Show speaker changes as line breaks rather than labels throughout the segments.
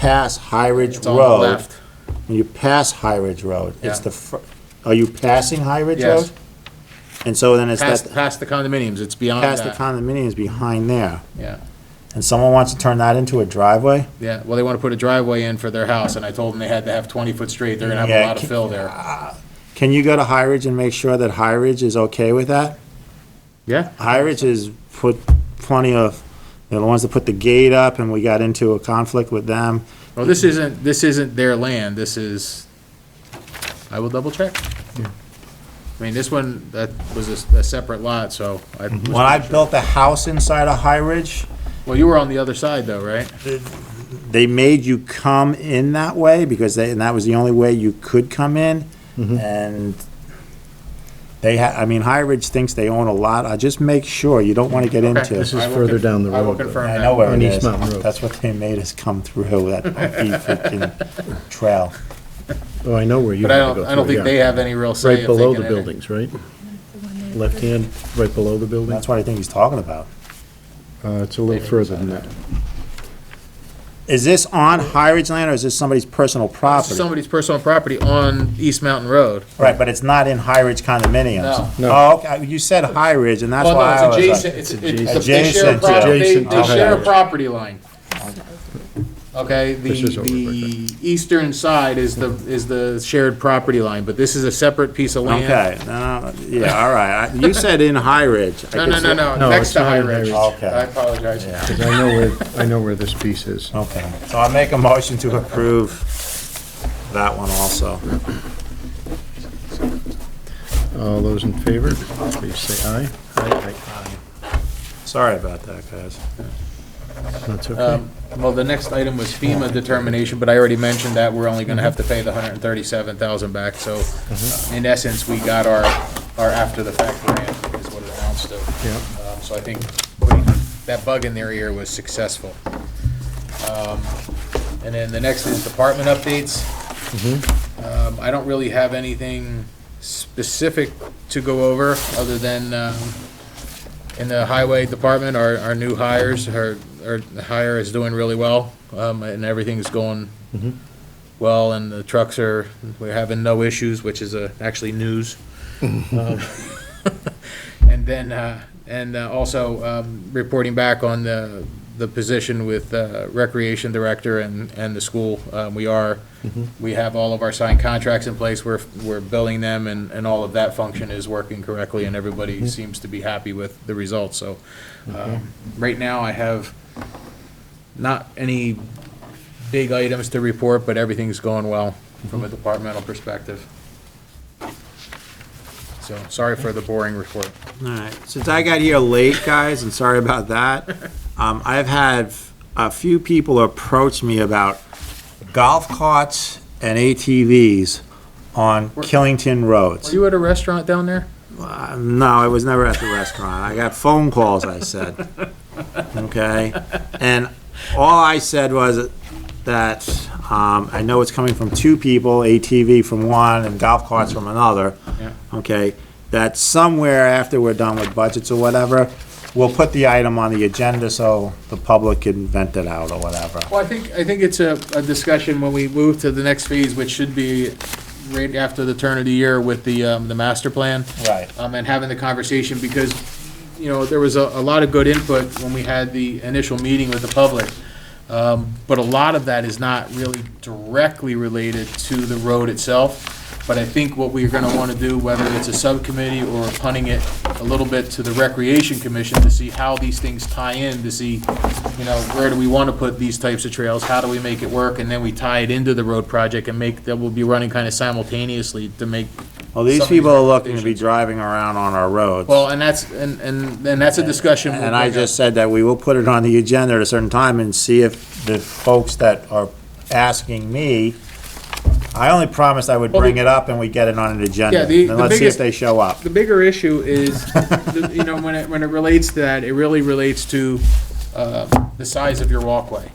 pass High Ridge
It's on the
Road,
left.
when you pass High Ridge Road, it's
Yeah.
the, fr- are you passing High Ridge
Yes.
Road? And so then it's
Past,
that,
past the condominiums, it's beyond
past the
that.
condominiums behind there,
Yeah,
and someone wants to turn that into a driveway?
yeah. Well, they want to put a driveway in for their house, and I told them they had to have twenty foot straight. They're gonna have
Yeah,
a lot
can-
of fill there.
Can you go to High Ridge and make sure that High Ridge is okay with that?
Yeah,
High Ridge has put plenty of, they're the ones that put the gate up, and we got into a conflict with them.
well, this isn't, this isn't their land, this is, I will double check. I mean, this one, that was a, s- a separate lot, so I,
When I built the house inside of High Ridge,
well, you were on the other side though, right?
they made you come in that way because they, and that was the only way you could come in.
Mm-hmm.
And they ha, I mean, High Ridge thinks they own a lot. I just make sure you don't want to get into.
This
it.
is
I will
further
conf-
down the
I will
road, though.
confirm
I
that.
know where it
On East
is.
Mountain Road.
That's what they made us come through that funky freaking trail.
Oh, I know where you
But I
have to go
don't,
through.
I don't think
yeah.
they have any real say.
Right
if they
below
can
the
enter.
buildings, right? Left hand, right below the building?
That's what I think he's talking about.
Uh, it's a little further than that.
Is this on High Ridge land or is this somebody's personal property?
Somebody's personal property on East Mountain Road.
Right, but it's not in High Ridge condominiums.
No. No.
Oh, okay, you said High Ridge and that's
Well,
why I
no,
was
it's
like.
adjacent, it's, it's, they share a
Adjacent to-
property, they,
Adjacent to
they share a
Highway.
property line. Okay, the,
This is over
the eastern side is the, is the shared property line, but this is a separate piece of land.
Okay, no, yeah, all right. I- You said in High Ridge. I
No,
could
no, no,
say-
no,
No,
next
it's
to
not
High
in High
Ridge.
Ridge.
Okay.
I apologize.
Because I know where, I know where this piece is.
Okay, so I make a motion to approve that one also.
All those in favor, please say aye. Aye.
Sorry about that, guys.
That's okay.
Um, Well, the next item was FEMA determination, but I already mentioned that we're only gonna have to pay the hundred and thirty-seven thousand back, so in essence, we got our, our after-the-fact grant is what it amounts to.
Yeah.
Um, So I think putting that bug in their ear was successful. Um, And then the next is department updates. Um, I don't really have anything specific to go over, other than, um, in the highway department, our, our new hires, our, our hire is doing really well, um, and everything's going well, and the trucks are, we're having no issues, which is, uh, actually news. Um, And then, uh, and uh, also, um, reporting back on the, the position with, uh, Recreation Director and, and the school, um, we are, we have all of our signed contracts in place, we're, we're billing them, and, and all of that function is working correctly, and everybody seems to be happy with the results, so. um, Right now, I have not any big items to report, but everything's going well from a departmental perspective. So, sorry for the boring report.
All right, since I got here late, guys, and sorry about that, um, I've had a few people approach me about golf carts and ATVs on Killington roads.
You at a restaurant down there?
Uh, No, I was never at the restaurant. I got phone calls, I said. Okay? And all I said was that, um, I know it's coming from two people, ATV from one and golf carts from another.
Yeah.
Okay? That somewhere after we're done with budgets or whatever, we'll put the item on the agenda so the public can vent it out or whatever.
Well, I think, I think it's a, a discussion when we move to the next phase, which should be right after the turn of the year with the, um, the master plan.
Right.
Um, and having the conversation, because, you know, there was a, a lot of good input when we had the initial meeting with the public. Um, but a lot of that is not really directly related to the road itself. But I think what we're gonna wanna do, whether it's a subcommittee or punting it a little bit to the Recreation Commission to see how these things tie in, to see, you know, where do we wanna put these types of trails, how do we make it work, and then we tie it into the road project and make, that will be running kinda simultaneously to make
Well, these
Some of these
people are looking to be
recommendations.
driving around on our roads.
Well, and that's, and, and, and that's a discussion. we'll
And I
bring up.
just said that we will put it on the agenda at a certain time and see if the folks that are asking me, I only promised I would bring it up and we get it on an agenda.
Yeah, the-
And
the
let's see if
biggest-
they show up.
The bigger issue is, the- you know, when it, when it relates to that, it really relates to, uh, the size of your walkway,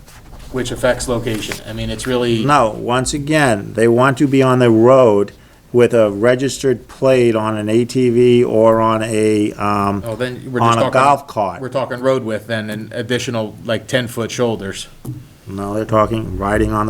which affects location. I mean, it's really,
No, once again, they want to be on the road with a registered plate on an ATV or on a, um,
oh, then we're just
on
talking.
a golf
We're
cart.
talking road width then, and additional, like, ten-foot shoulders.
Now they're talking, riding on